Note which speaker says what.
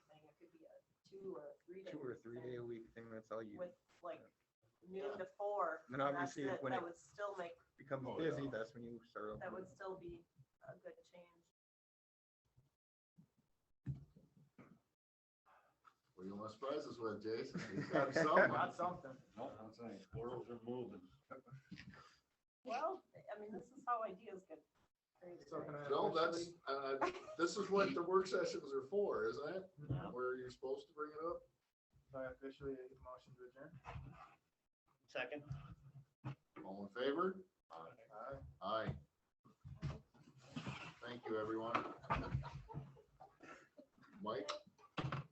Speaker 1: two or three days.
Speaker 2: two or three day a week thing, that's all you,
Speaker 1: With like noon to four.
Speaker 2: And
Speaker 1: that's
Speaker 2: obviously,
Speaker 1: it.
Speaker 2: when
Speaker 1: That
Speaker 2: it-
Speaker 1: would still make,
Speaker 2: becomes
Speaker 3: Oh,
Speaker 2: busy,
Speaker 3: yeah.
Speaker 2: that's when you start.
Speaker 1: that would
Speaker 2: opening.
Speaker 1: still be a good change.
Speaker 4: Well, you want to surprise us with, Jason? He's got something.
Speaker 5: Got something.
Speaker 3: Nope, I'm saying, squirrels are moving.
Speaker 1: Well, I mean, this is how ideas get created.
Speaker 5: So can
Speaker 1: right?
Speaker 5: I
Speaker 4: No, that's,
Speaker 5: officially-
Speaker 4: uh, this is what the work sessions are for, isn't it?
Speaker 5: Yeah.
Speaker 4: Where you're supposed to bring it up?
Speaker 5: So I officially make a motion to adjourn.
Speaker 6: Second.
Speaker 4: All in favor?
Speaker 5: Aye.
Speaker 4: Aye. Thank you, everyone. Mike?